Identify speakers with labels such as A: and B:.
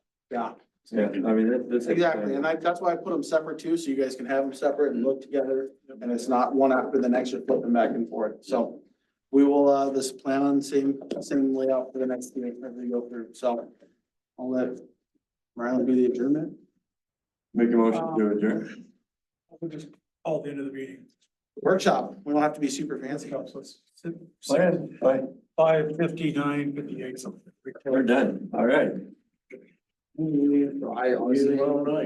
A: Yeah,
B: Yeah, I mean, that- that's.
A: exactly. And I, that's why I put them separate too, so you guys can have them separate and look together. And it's not one after the next, you're flipping back and forth. So we will, uh, this plan on same, same layout for the next meeting as we go through. So I'll let Ryan do the adjournment.
B: Make a motion
A: um,
B: to adjourn.
C: We'll just call the end of the meeting.
A: Workshop, we don't have to be super fancy.
B: Bye.
C: Five fifty-nine, fifty-eight, something.
B: We're done. All right.
A: I honestly-